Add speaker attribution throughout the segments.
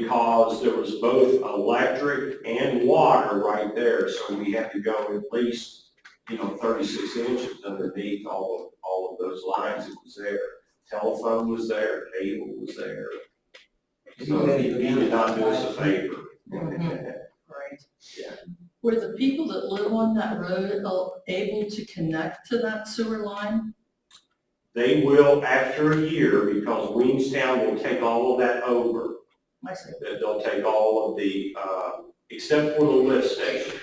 Speaker 1: because there was both electric and water right there, so we had to go at least, you know, thirty-six inches underneath all of, all of those lines that was there. Telephone was there, cable was there. So he he did not do us a favor.
Speaker 2: Right.
Speaker 1: Yeah.
Speaker 2: Were the people that live on that road al- able to connect to that sewer line?
Speaker 1: They will, after a year, because Weenstown will take all of that over,
Speaker 2: I see.
Speaker 1: that they'll take all of the, uh, except for the lift station,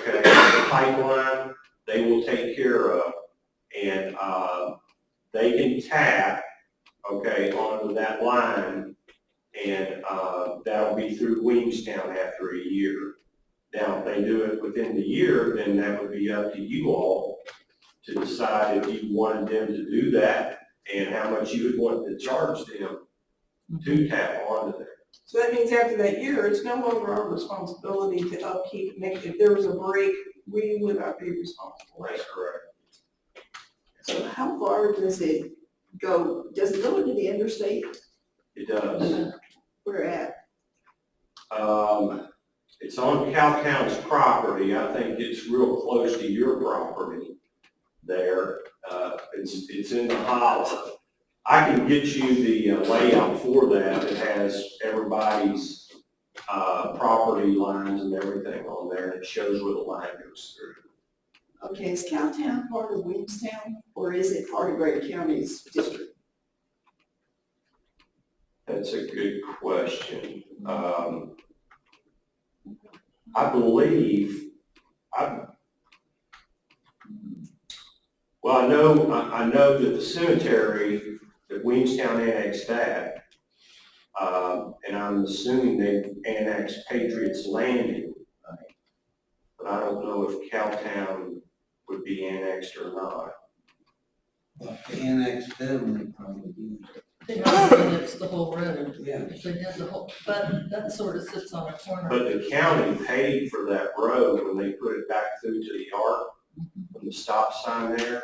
Speaker 1: okay? The pipeline, they will take care of, and, uh, they can tap, okay, onto that line, and, uh, that'll be through Williamstown after a year. Now, if they do it within the year, then that would be up to you all to decide if you wanted them to do that, and how much you would want to charge them to tap onto that.
Speaker 3: So that means after that year, it's no longer our responsibility to upkeep, make, if there was a break, we would not be responsible.
Speaker 1: That's correct.
Speaker 4: So how far does it go, does it go into the interstate
Speaker 1: It does.
Speaker 4: we're at?
Speaker 1: Um, it's on Cowtown's property. I think it's real close to your property there. Uh, it's, it's in the hollow. I can get you the uh, layout for that. It has everybody's, uh, property lines and everything on there. It shows where the line goes through.
Speaker 4: Okay, is Cowtown part of Williamstown, or is it part of Greater County's district?
Speaker 1: That's a good question. Um, I believe, I, well, I know, I, I know that the cemetery, that Williamstown annexed that. Um, and I'm assuming they annexed Patriots Landing. But I don't know if Cowtown would be annexed or not.
Speaker 5: Well, the Annex them, they probably do.
Speaker 2: They might have annexed the whole road,
Speaker 5: Yeah,
Speaker 2: if they did the whole, but that sort of sits on a corner.
Speaker 1: But the county paid for that road when they put it back through to the arc, from the stop sign there.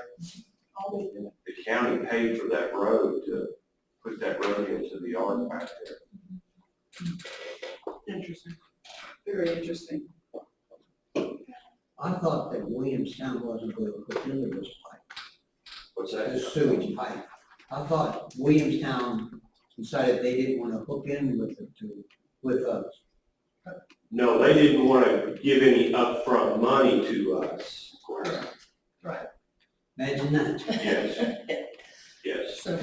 Speaker 1: The county paid for that road to put that road into the arc back there.
Speaker 3: Interesting.
Speaker 4: Very interesting.
Speaker 5: I thought that Williamstown wasn't going to put in this pipe,
Speaker 1: What's
Speaker 5: the
Speaker 1: that?
Speaker 5: sewage pipe. I thought Williamstown decided they didn't want to hook in with it to, with us.
Speaker 1: No, they didn't want to give any upfront money to us.
Speaker 5: Imagine that.
Speaker 1: Yes. Yes.
Speaker 2: So,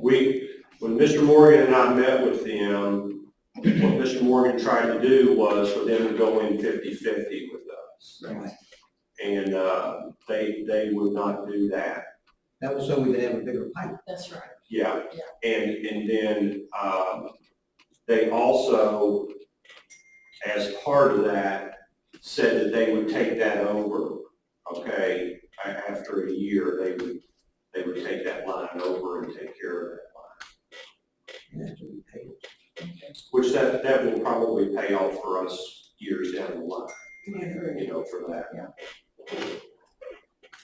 Speaker 1: We, when Mr. Morgan and I met with them, what Mr. Morgan tried to do was for them to go in fifty-fifty with us.
Speaker 5: Right.
Speaker 1: And, uh, they, they would not do that.
Speaker 5: That was so we could have a bigger pipe.
Speaker 2: that's right.
Speaker 1: Yeah, and, and then, um, they also, as part of that, said that they would take that over, okay? A- After a year, they would, they would take that line over and take care of that line,
Speaker 5: and that's what we paid.
Speaker 1: which that, that will probably pay off for us years down the line, you know, for that.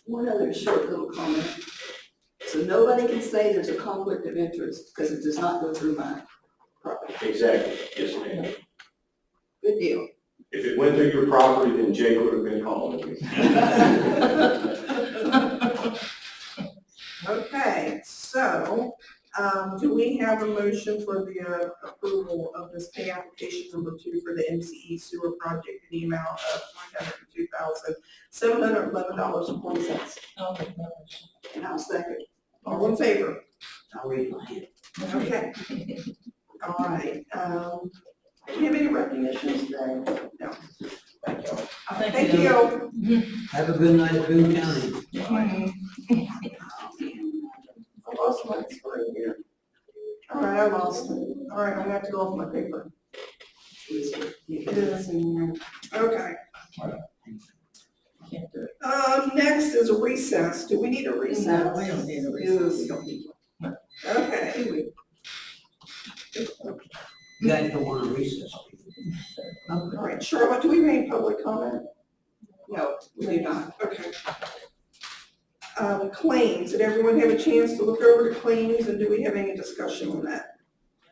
Speaker 4: One other short little comment. So nobody can say there's a conflict of interest, because it does not go through mine.
Speaker 1: Exactly, yes, ma'am.
Speaker 4: Good deal.
Speaker 1: If it went through your property, then Jake would have been calling you.
Speaker 3: Okay, so, um, do we have a motion for the uh, approval of this pay application number two for the MCE sewer project in the amount of one hundred and two thousand, seven hundred and eleven dollars and forty cents?
Speaker 2: I'll make that motion.
Speaker 4: And I'll second.
Speaker 3: All in favor?
Speaker 5: I'll read my hand.
Speaker 3: Okay. All right, um, do you have any recognitions today? No. Thank you.
Speaker 2: Thank
Speaker 3: Thank you.
Speaker 5: Have a good night, Boone County.
Speaker 3: I lost my screen here. All right, I lost it. All right, I'm gonna have to go off my paper. It is in here. Okay.
Speaker 2: Can't do it.
Speaker 3: Um, next is recess. Do we need a
Speaker 2: No,
Speaker 3: recess?
Speaker 2: we don't need a recess.
Speaker 3: Okay.
Speaker 5: You guys don't want to recess.
Speaker 3: Um, All right, Charlotte, do we have any public comment? No, we do not, okay. Um, claims, did everyone have a chance to look over the claims and do we have any discussion on that?